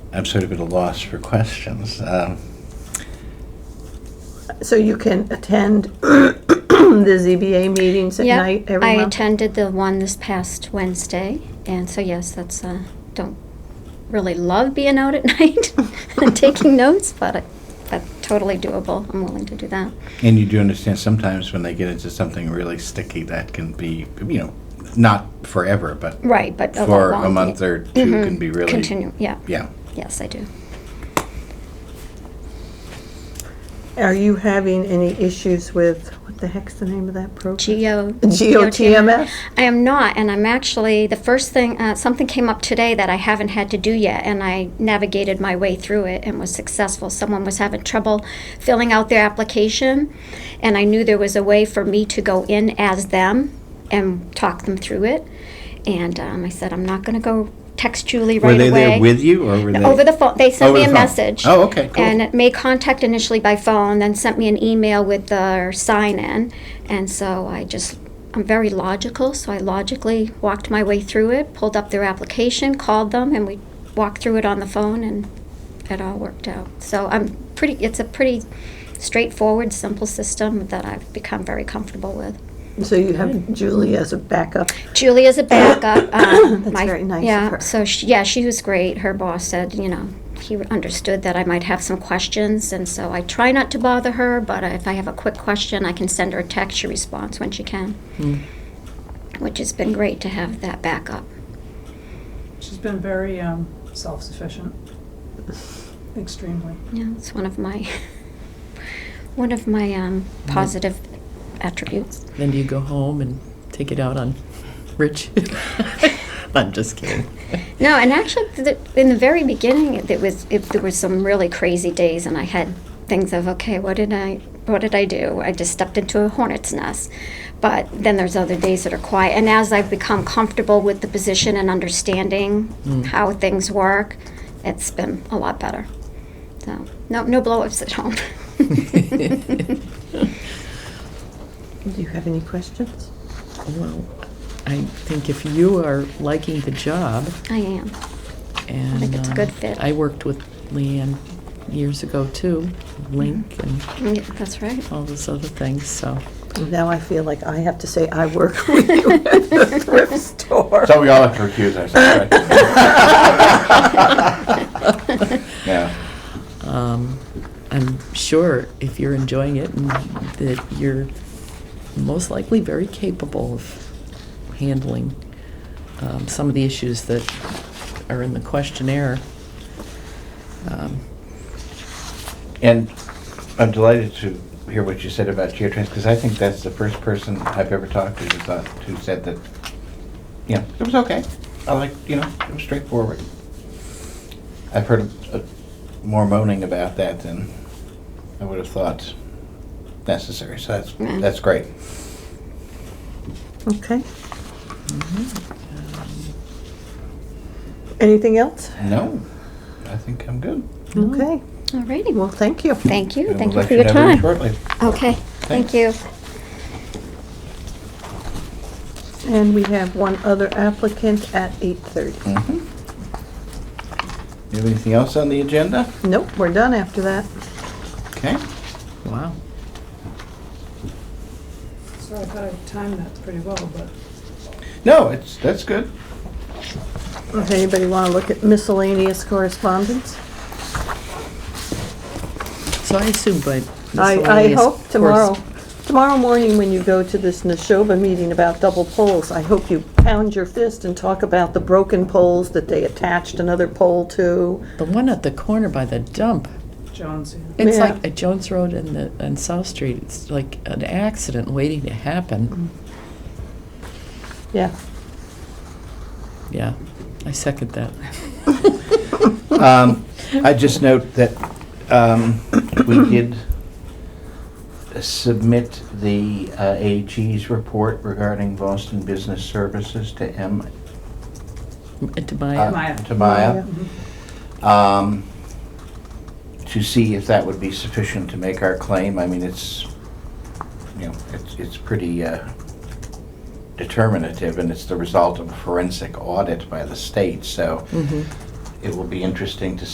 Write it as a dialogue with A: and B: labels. A: I'm sort of at a loss for questions. Um,
B: So you can attend the ZBA meetings at
C: Yeah,
B: night every
C: I
B: month?
C: attended the one this past Wednesday, and so yes, that's, uh, don't really love being out at night and taking notes, but, I- but totally doable, I'm willing to do that.
A: And you do understand sometimes when they get into something really sticky, that can be, you know, not forever, but
C: Right, but. over
A: for a
C: long
A: month
C: pe-
A: or 2 can be really.
C: Mm-hmm. Continue, yeah,
A: Yeah.
C: yes, I do.
B: Are you having any issues with, what the heck's the name of that program?
C: Geo.
B: GOTMS?
C: I am not, and I'm actually, the first thing, uh, something came up today that I haven't had to do yet, and I navigated my way through it and was successful. Someone was having trouble filling out their application, and I knew there was a way for me to go in as them and talk them through it. And um, I said, I'm not going to go text Julie right
A: Were they
C: away.
A: there with you or were they?
C: Over the phone, they sent
A: Over
C: me
A: the phone.
C: a message.
A: Oh, okay, cool.
C: And it made contact initially by phone, then sent me an email with their sign-in. And so I just, I'm very logical, so I logically walked my way through it, pulled up their application, called them, and we walked through it on the phone, and it all worked out. So I'm pretty, it's a pretty straightforward, simple system that I've become very comfortable with.
B: So you have Julie as a backup?
C: Julie is a backup. um,
B: That's
C: my-
B: very nice of
C: yeah,
B: her.
C: So she, yeah, she was great. Her boss said, you know, he understood that I might have some questions, and so I try not to bother her. But if I have a quick question, I can send her a text. She responds when she can, which has been great to have that backup.
D: She's been very um, self-sufficient, extremely.
C: Yeah, it's one of my one of my um, positive attributes.
E: Then do you go home and take it out on Rich? I'm just kidding.
C: No, and actually, th- in the very beginning, it, was it, there were some really crazy days, and I had things of okay, what did I what did I do? I just stepped into a hornet's nest. But then there's other days that are quiet, and as I've become comfortable with the position and understanding how things work, it's been a lot better. So no no blowups at home.
B: Do you have any questions?
E: Well, I think if you are liking the job
C: I am.
E: and.
C: think it's a
E: uh,
C: good fit.
E: I worked with Leanne years ago too, Link and
C: Yeah, that's right.
E: all those other things, so.
B: Now I feel like I have to say I work with you at the thrift store.
A: So we all have to recuse ourselves, right? Yeah.
E: um, I'm sure if you're enjoying it and that you're most likely very capable of handling um, some of the issues that are in the questionnaire. Um,
A: And I'm delighted to hear what you said about GeoTrans, because I think that's the first person I've ever talked to who thought, who said that, you know, it was okay. I like, you know, it was straightforward. I've heard uh, more moaning about that than I would have thought necessary, so that's,
C: Mm.
A: that's great.
B: Okay.
C: Mm-hmm.
B: Anything else?
A: No, I think I'm good.
B: Okay,
C: Alrighty.
B: well, thank you.
C: Thank you.
A: And
C: Thank
A: we'll let
C: you for your
A: know very
C: time.
A: Shortly.
C: Okay.
A: Thanks.
C: Thank you.
B: And we have one other applicant at 8:30.
A: Mhm. You have anything else on the agenda?
B: Nope, we're done after that.
A: Okay.
E: wow.
D: So I thought I timed that pretty well, but
A: No, it's, that's good.
B: If anybody want to look at miscellaneous correspondence?
E: So I assume by
B: I, I
E: miscellaneous
B: hope tomorrow,
E: corres-
B: tomorrow morning when you go to this Neshoba meeting about double poles, I hope you pound your fist and talk about the broken poles that they attached another pole to.
E: the one at the corner by the dump.
D: Joan's here.
E: It's
B: Yeah.
E: like a Jones Road and the and South Street. It's like an accident waiting to
B: Mm.
E: happen.
B: Yeah,
E: Yeah, I second that.
A: Um, I just note that um, we did submit the uh, AG's report regarding Boston Business Services to M.
E: And to my
A: uh,
D: Maya.
A: To Maya. um, To see if that would be sufficient to make our claim. I mean, it's, you know, it's, it's pretty uh, determinative, and it's the result of a forensic audit by the state, so it will be interesting to